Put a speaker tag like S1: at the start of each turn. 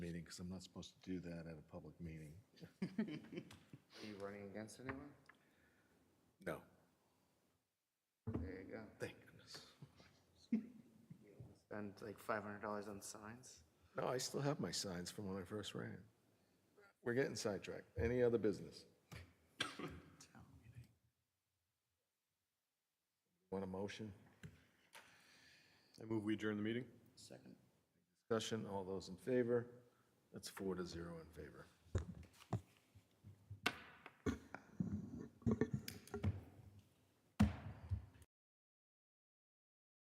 S1: because I'm not supposed to do that at a public meeting.
S2: Are you running against anyone?
S1: No.
S2: There you go.
S1: Thank goodness.
S2: Spend like five hundred dollars on signs?
S1: No, I still have my signs from when I first ran. We're getting sidetracked. Any other business? Want a motion?
S3: I move we adjourn the meeting.
S1: Discussion? All those in favor? That's four to zero in favor.